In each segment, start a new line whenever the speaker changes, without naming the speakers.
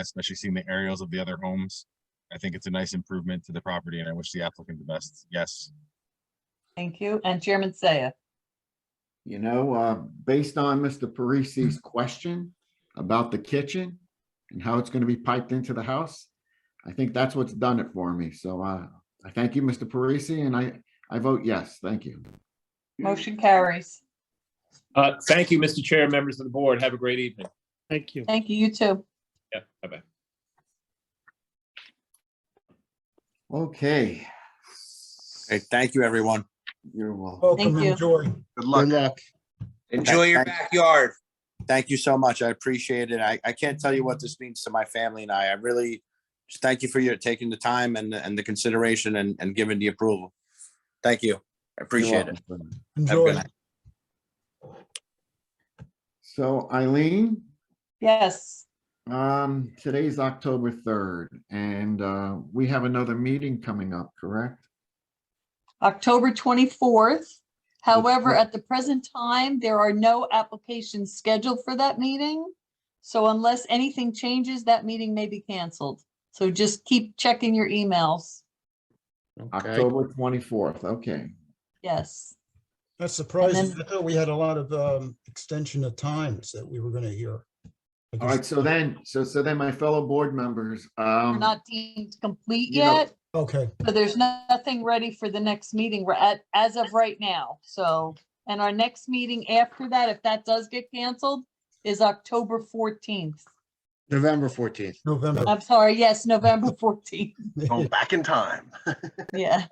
especially seeing the aerials of the other homes. I think it's a nice improvement to the property and I wish the applicant the best. Yes.
Thank you. And Chairman Saya,
You know, uh, based on Mr. Parisi's question about the kitchen and how it's gonna be piped into the house, I think that's what's done it for me. So, uh, I thank you, Mr. Parisi, and I, I vote yes. Thank you. Hmm.
motion carries.
Uh, thank you, Mr. Chair, members of the board. Have a great evening.
Thank you.
Thank you, you too.
Yeah, bye-bye.
Okay.
Okay, thank you, everyone.
You're welcome.
Welcome,
you.
enjoy.
Good luck.
Thank-
Enjoy your
thank-
backyard.
Thank you so much. I appreciate it. I, I can't tell you what this means to my family and I. I really just thank you for your taking the time and, the- and the consideration and, and giving the approval. Thank you. I appreciate it.
it.
Have a good
Enjoy.
night.
So Eileen,
Yes,
um, today's October third, and, uh, we have another meeting coming up, correct?
October 24th. However, at the present time, there are no applications scheduled for that meeting. So unless anything changes, that meeting may be canceled. So just keep checking your emails.
Okay.
October twenty-fourth, okay.
Yes.
That's surprising.
then-
I thought we had a lot of um, extension of times that we were going to hear. I
All right,
guess-
so then, so, so then my fellow board members,
We're
um,
not deemed complete
you know-
yet,
Okay,
so there's no- nothing ready for the next meeting. We're at, as of right now. So, and our next meeting after that, if that does get canceled, is October 14th.
November fourteenth.
November.
I'm sorry, yes, November 14th. Oh.
Yeah.
back in time.
Yeah.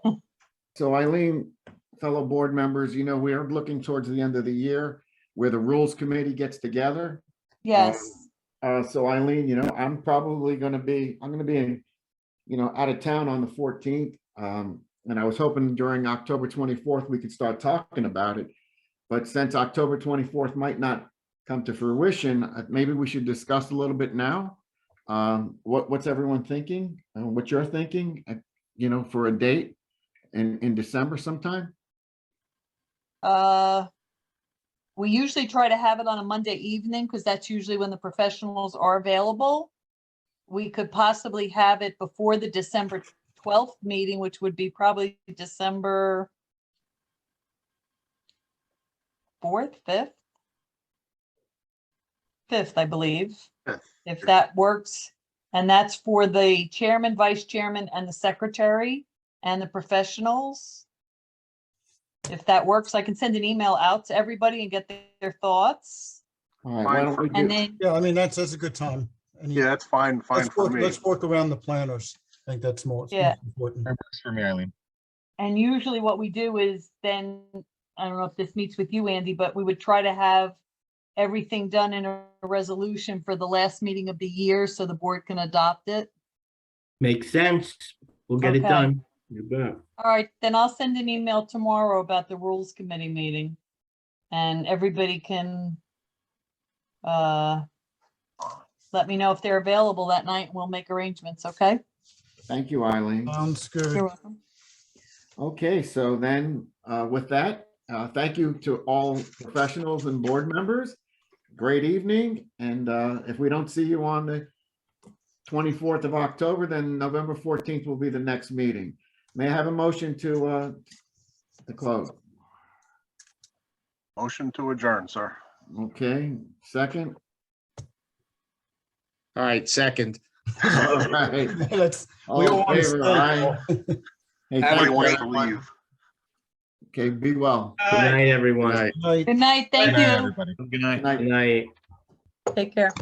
So Eileen, fellow board members, you know, we are looking towards the end of the year where the rules committee gets together.
Yes,
Uh, so Eileen, you know, I'm probably gonna be, I'm gonna be in, you know, out of town on the fourteenth. Um, and I was hoping during October twenty-fourth, we could start talking about it. But since October twenty-fourth might not come to fruition, uh, maybe we should discuss a little bit now. Um, what, what's everyone thinking? Uh, what you're thinking, uh, you know, for a date in, in December sometime?
uh, we usually try to have it on a Monday evening because that's usually when the professionals are available. We could possibly have it before the December 12th meeting, which would be probably December 4th, 5th? 5th, I believe,
Fifth,
if that works. And that's for the chairman, vice chairman, and the secretary and the professionals. If that works, I can send an email out to everybody and get their- their thoughts.
All right, why
Fine
don't
for
we
And
do,
then,
Yeah, I mean, that's, that's a good time. And
Yeah, that's fine, fine
Let's
for
work,
me.
let's work around the planners. I think that's more it's
Yeah.
most important.
That works For me, Eileen.
and usually what we do is then, I don't know if this meets with you, Andy, but we would try to have everything done in a resolution for the last meeting of the year so the board can adopt it.
Makes sense. We'll get it
Okay.
done. You bet.
All right, then I'll send an email tomorrow about the rules committee meeting. And everybody can uh, let me know if they're available that night. We'll make arrangements, okay?
thank you, Eileen.
Sounds
You're
good.
welcome.
Okay, so then, uh, with that, uh, thank you to all professionals and board members. Great evening, and, uh, if we don't see you on the twenty-fourth of October, then November fourteenth will be the next meeting. May I have a motion to, uh, to close?
Motion to adjourn, sir.
Okay, second?
All right, second.
All right.
That's,
All
we
in
all want
favor,
to
aye.
stay.
Hey,
Have a
thank
I
you.
want
great
to
one.
leave.
Okay, be well.
Good night,
All
everyone.
right.
Good night.
Good night,
Good
thank
night,
you.
everybody.
Good night.
Good night.
Good night.
Take care.